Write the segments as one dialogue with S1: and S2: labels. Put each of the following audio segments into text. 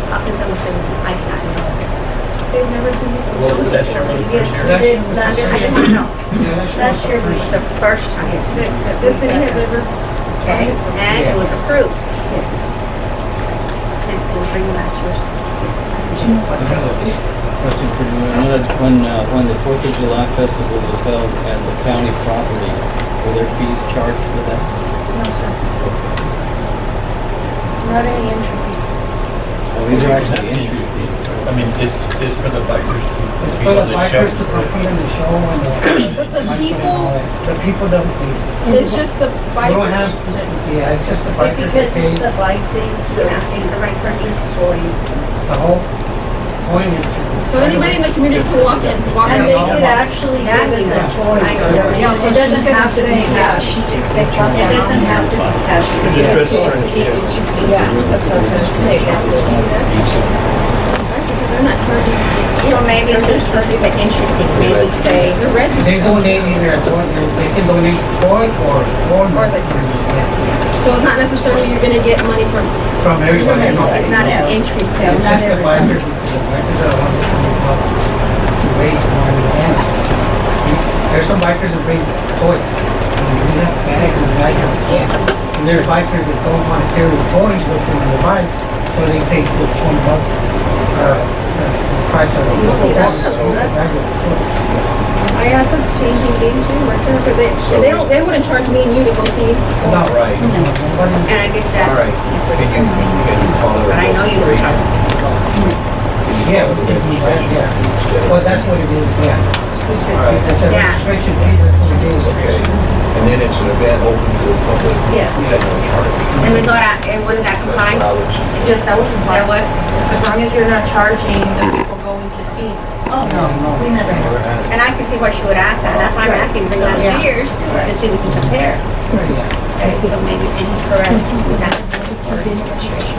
S1: and I I don't know. They've never been.
S2: Well, was that year when the first year?
S1: Yes, they did, but I mean, I didn't know.
S3: uh,
S1: Last year was the first time.
S4: that the city has ever,
S1: And, and it was approved. And we'll bring last year's.
S3: Question for you, When, when, uh, when the Fourth of July festival was held at the county property, were there fees charged for that?
S4: no, sir. Not any entry.
S3: Well, these are actually entry fees.
S2: I mean, this is for the bikers to.
S5: It's
S2: be
S5: for the
S2: on
S5: bikers to
S2: show.
S5: perform the show and the.
S4: But the
S5: bikes and all
S4: people,
S5: that. The people don't pay.
S4: it's just the
S5: We don't
S4: bikers.
S5: have, yeah, it's just the bikers that pay.
S1: the right thing, the right for employees.
S5: The whole point is to.
S4: So anybody in the community can walk in, walk
S5: And
S4: in.
S5: they could
S1: actually give us a choice.
S6: Yeah, so she's gonna say, yeah, she takes that truck
S1: It doesn't
S6: down.
S1: have to be
S6: It's-
S1: tested.
S2: Just register it.
S6: it's- She's gonna, yeah, that's what I was gonna say.
S4: They're not charging.
S1: So maybe just look at the entry fee, maybe say,
S4: They're red.
S5: They donate either, a toy- they can donate toy or, or.
S4: Or the- So it's not necessarily you're gonna get money from,
S5: From everybody. you know.
S1: it's not an entry fee.
S5: It's
S1: not
S5: just the
S1: every-
S5: bikers, the bikers are the ones that come up to raise money and. There's some bikers that bring toys. I mean, We have bags and bikers. Yeah. And there's bikers that don't want to carry the toys with them on the bikes, so they pay the twenty bucks, uh, the the price of.
S4: Well, see, that's-
S5: that's.
S4: I asked them changing game too, right there, but they, they don't, they wouldn't charge me and you to go see.
S5: No,
S2: All right,
S5: right.
S1: And I get
S2: all
S1: that,
S2: right. Can you, can you follow?
S1: but I know you were talking.
S5: Yeah, we can do that, yeah. Well, that's what it is, yeah. It's a
S1: Yeah.
S5: restriction, fee, that's what it is.
S2: Okay, and then it's an event open to the public.
S1: Yeah.
S2: That's no charge.
S1: And we thought, I- and wouldn't that combine?
S2: Dollars.
S7: Yes, that would be
S1: That
S7: fine.
S1: would,
S7: As long as you're not charging the people going to see.
S1: oh,
S5: No, no.
S7: We never have.
S1: and I can see why she would ask that, that's why I'm asking for the last two years, to see if we can compare.
S5: Yeah.
S1: Okay, so maybe incorrect, not for administration.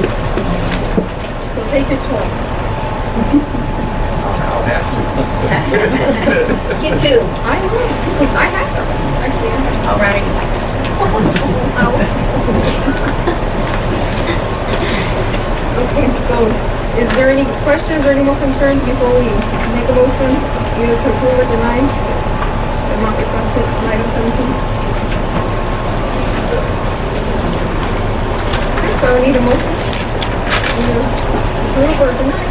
S4: So take your toy.
S2: I'll have to.
S1: You too.
S4: I will. I have them, actually. I have them.
S1: All right.
S4: Okay, so is there any questions or any more concerns before we make a motion? Either to approve or deny the amount requested, in item seventeen? Okay, so I need a motion. Either Approve or deny?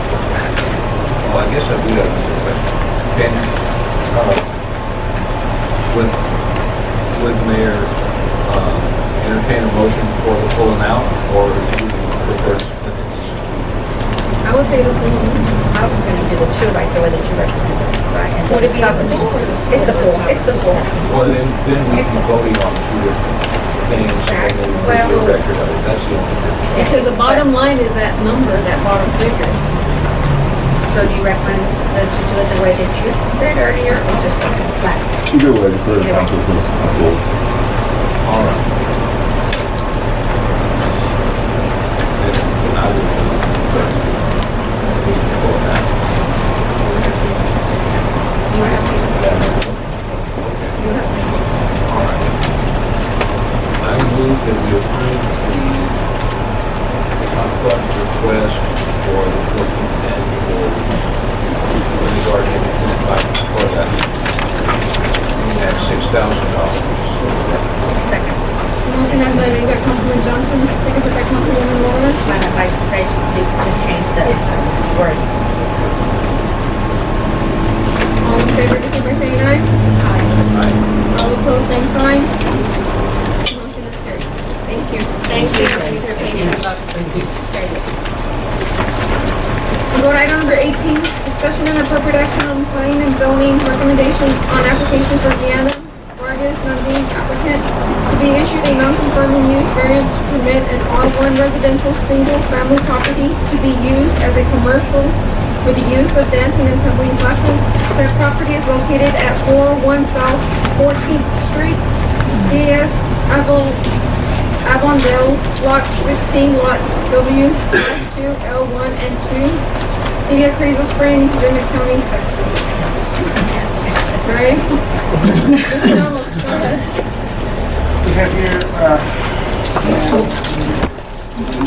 S2: Well, I guess I do have a question. Can, uh, with, with mayor, um, entertain a motion for the full amount or do you prefer to split it easily?
S4: I would say approve.
S1: I was gonna do the two right there, that you recommended. Right. and
S4: Would it be the
S1: cover-
S4: full or the
S1: It's the full, it's the full.
S2: Well, then, then we can vote on two different things and then we can do a record of it. That's the only difference.
S4: Because the bottom line is that number, that bottom figure.
S1: So do you recommend us to do it the way that you said earlier, or just flat?
S8: Either way, just let it count as most people.
S2: All right. Then I will, uh, full amount.
S4: You have to
S2: I move that we approve the Concom request for the fourteenth annual Community Garden by Corvette. At six thousand dollars.
S4: Motion has been made by Councilman Johnson, seconded by Councilwoman Lawrence.
S1: Might if I just say to please just change the word.
S4: All in favor, indicate by saying aye. Aye. All opposed, same sign. Motion is carried. Thank you. Thank you for your opinion about this. Carried. We'll go to item number 18, discussion and appropriate action on planning and zoning recommendations on application for Deanna Vargas, non-being applicant, to be issued a non-conforming use variance permit and R1 residential single-family property to be used as a commercial for the use of dancing and tumbling classes. Said property is located at 401 South 14th Street, CS Avon Avondale, Lot 16, Lot W, 2, L1 and 2, City of Crazel Springs, Dimmitt County, Texas. Right? Mr. Ramos, go ahead.
S5: You have your, uh,